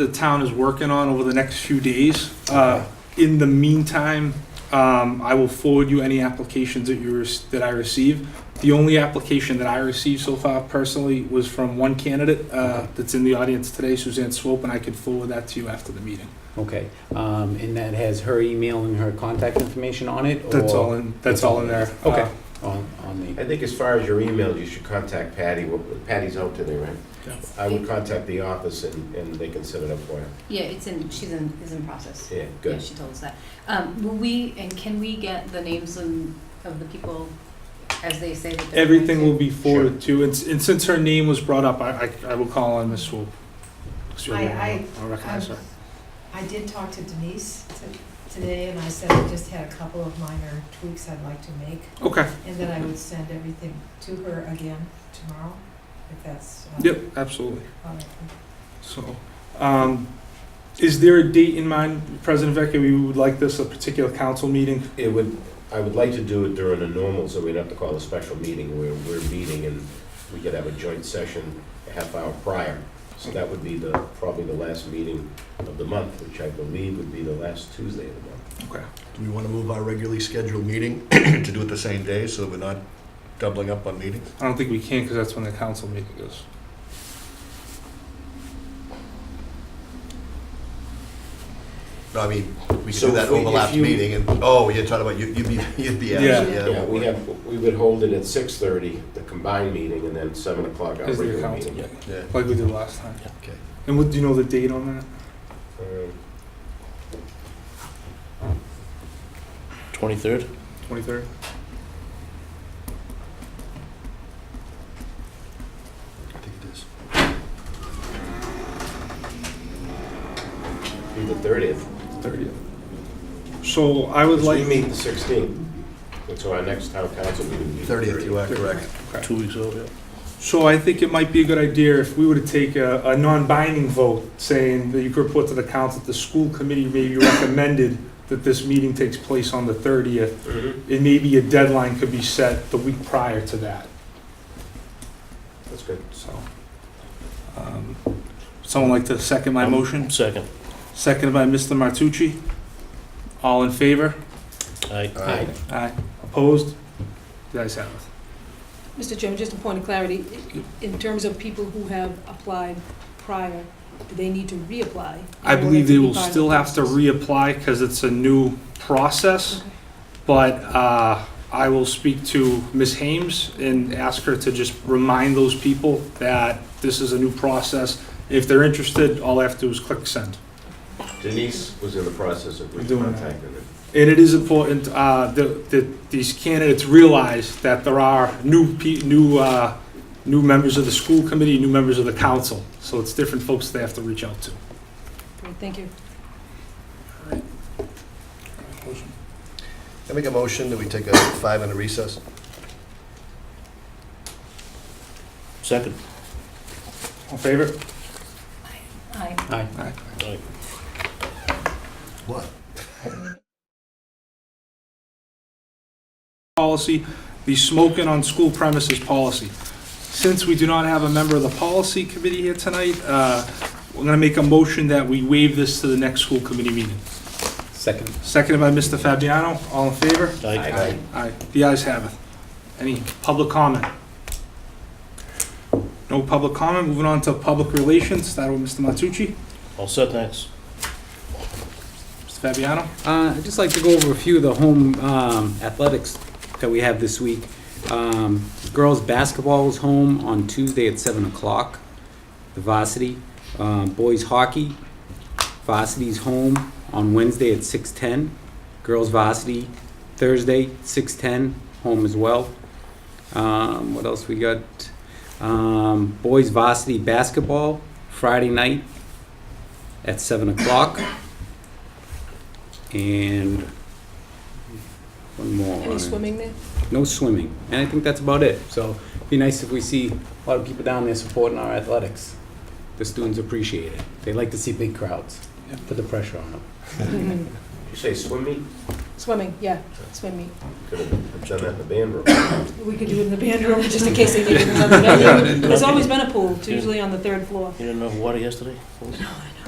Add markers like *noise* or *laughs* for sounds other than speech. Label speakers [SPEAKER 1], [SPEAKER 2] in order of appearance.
[SPEAKER 1] the town is working on over the next few days. Uh, In the meantime, um, I will forward you any applications that you, rec- that I receive. The only application that I received so far personally was from one candidate uh, that's in the audience today, Suzanne Swope, and I could forward that to you after the meeting.
[SPEAKER 2] Okay, um, and that has her email and her contact information on it?
[SPEAKER 1] That's
[SPEAKER 2] or-
[SPEAKER 1] all in, Oh, that's
[SPEAKER 2] It's
[SPEAKER 1] all in there.
[SPEAKER 2] Okay,
[SPEAKER 1] Uh,
[SPEAKER 2] on, on
[SPEAKER 3] I
[SPEAKER 2] the,
[SPEAKER 3] think as far as your email, you should contact Patty. Well, Patty's out today, right?
[SPEAKER 4] It's-
[SPEAKER 3] I would contact the office and, and they can set it up for you.
[SPEAKER 4] Yeah, it's in, she's in, is in process.
[SPEAKER 3] Yeah,
[SPEAKER 4] Yeah,
[SPEAKER 3] good.
[SPEAKER 4] she told us that. Um, will we, and can we get the names and of the people as they say that they're going to?
[SPEAKER 1] Everything will be forwarded to, and s- and since her name was brought up, I, I I will call on Ms. Swope. Excuse me,
[SPEAKER 5] I- I-
[SPEAKER 1] I'll recognize her.
[SPEAKER 5] Um, I did talk to Denise t- today, and I said I just had a couple of minor tweaks I'd like to make,
[SPEAKER 1] Okay,
[SPEAKER 5] and that I would send everything to her again tomorrow, if that's. uh,
[SPEAKER 1] yep, absolutely.
[SPEAKER 5] all right.
[SPEAKER 1] So, um, is there a date in mind, President Vecchia, we would like this, a particular council meeting?
[SPEAKER 3] It would, I would like to do it during a normal, so we'd have to call a special meeting. We're, we're meeting and we could have a joint session a half hour prior. So that would be the, probably the last meeting of the month, which I believe would be the last Tuesday of the month.
[SPEAKER 1] Okay.
[SPEAKER 6] Do we want to move our regularly scheduled meeting *clears throat* to do it the same day so that we're not doubling up on meetings?
[SPEAKER 1] I don't think we can, because that's when the council meeting is.
[SPEAKER 6] No, I mean, we could
[SPEAKER 3] So
[SPEAKER 6] do that
[SPEAKER 3] if we- if
[SPEAKER 6] overlap
[SPEAKER 3] you-
[SPEAKER 6] meeting and, oh, you're talking about, you- you'd be, *laughs* you'd be
[SPEAKER 1] Yeah.
[SPEAKER 6] absent,
[SPEAKER 3] Yeah, we
[SPEAKER 6] yeah.
[SPEAKER 3] have, we would hold it at six thirty, the combined meeting, and then seven o'clock our
[SPEAKER 1] Is the
[SPEAKER 3] regular
[SPEAKER 1] council
[SPEAKER 3] meeting.
[SPEAKER 1] meeting,
[SPEAKER 6] Yeah,
[SPEAKER 1] like we did last time.
[SPEAKER 6] okay.
[SPEAKER 1] And what, do you know the date on that?
[SPEAKER 3] Um,
[SPEAKER 7] Twenty-third?
[SPEAKER 1] Twenty-third?
[SPEAKER 6] I think it is.
[SPEAKER 3] Be the thirtieth.
[SPEAKER 1] Thirtieth. So I would
[SPEAKER 3] We
[SPEAKER 1] like.
[SPEAKER 3] meet the 16th, and so our next town council meeting. will be the
[SPEAKER 6] 30th, you are correct.
[SPEAKER 1] Okay.
[SPEAKER 7] Two weeks out, yeah.
[SPEAKER 1] So I think it might be a good idea if we were to take a, a non-binding vote, saying that you could report to the council that the school committee maybe recommended that this meeting takes place on the thirtieth,
[SPEAKER 3] Mhm,
[SPEAKER 1] and maybe a deadline could be set the week prior to that,
[SPEAKER 3] That's good.
[SPEAKER 1] so. um, Someone like to second my
[SPEAKER 7] Um,
[SPEAKER 1] motion?
[SPEAKER 7] Second.
[SPEAKER 1] Seconded by Mr. Martucci. All in favor?
[SPEAKER 7] Aye.
[SPEAKER 3] Aye.
[SPEAKER 1] Aye. Opposed? The ayes have it.
[SPEAKER 8] Mr. Chairman, just a point of clarity, in terms of people who have applied prior, do they need to reapply? in
[SPEAKER 1] I
[SPEAKER 8] order
[SPEAKER 1] believe
[SPEAKER 8] to
[SPEAKER 1] they
[SPEAKER 8] be
[SPEAKER 1] will
[SPEAKER 8] part of the
[SPEAKER 1] still have to
[SPEAKER 8] process?
[SPEAKER 1] reapply, because it's a new process.
[SPEAKER 8] Okay.
[SPEAKER 1] But uh, I will speak to Ms. Hames and ask her to just remind those people that this is a new process. If they're interested, all I have to do is click send.
[SPEAKER 3] Denise was in the process of
[SPEAKER 1] We're doing that.
[SPEAKER 3] contacting her.
[SPEAKER 1] And it is important uh, that that these candidates realize that there are new, pe- new, uh, new members of the school committee, new members of the council. So it's different folks they have to reach out to.
[SPEAKER 8] Great, Thank you.
[SPEAKER 6] I make a motion that we take a five-minute recess.
[SPEAKER 7] Second.
[SPEAKER 1] All in favor?
[SPEAKER 4] Aye.
[SPEAKER 2] aye.
[SPEAKER 7] Aye.
[SPEAKER 6] What?
[SPEAKER 1] Policy, the smoking on school premises policy. Since we do not have a member of the policy committee here tonight, uh, we're going to make a motion that we waive this to the next school committee meeting.
[SPEAKER 2] Second.
[SPEAKER 1] Seconded by Mr. Fabiano. All in favor?
[SPEAKER 7] Aye.
[SPEAKER 3] Aye.
[SPEAKER 1] Aye. The ayes have it. Any public comment? No public comment. Moving on to public relations. Start with Mr. Matucci.
[SPEAKER 7] All set, thanks.
[SPEAKER 1] Mr. Fabiano?
[SPEAKER 2] Uh, I'd just like to go over a few of the home um, athletics that we have this week. Um, Girls' basketball is home on Tuesday at 7 o'clock, the varsity. Um, Boys' hockey, varsity's home on Wednesday at 6:10. Girls' varsity, Thursday, 6:10, home as well. Um, What else we got? Um, Boys' varsity basketball, Friday night at 7 o'clock. And one more.
[SPEAKER 8] Any swimming there?
[SPEAKER 2] No swimming. And I think that's about it. So it'd be nice if we see a lot of people down there supporting our athletics. The students appreciate it. They like to see big crowds. Put the pressure on them.
[SPEAKER 3] Did you say swim meet?
[SPEAKER 8] Swimming, yeah, swim meet.
[SPEAKER 3] Could have done that in the
[SPEAKER 7] *coughs*
[SPEAKER 3] band room.
[SPEAKER 8] We could do it in the band room, just in case
[SPEAKER 1] *laughs*
[SPEAKER 8] they needed another venue. There's always been a pool, it's usually on the third floor.
[SPEAKER 7] You didn't know water yesterday?
[SPEAKER 8] No, I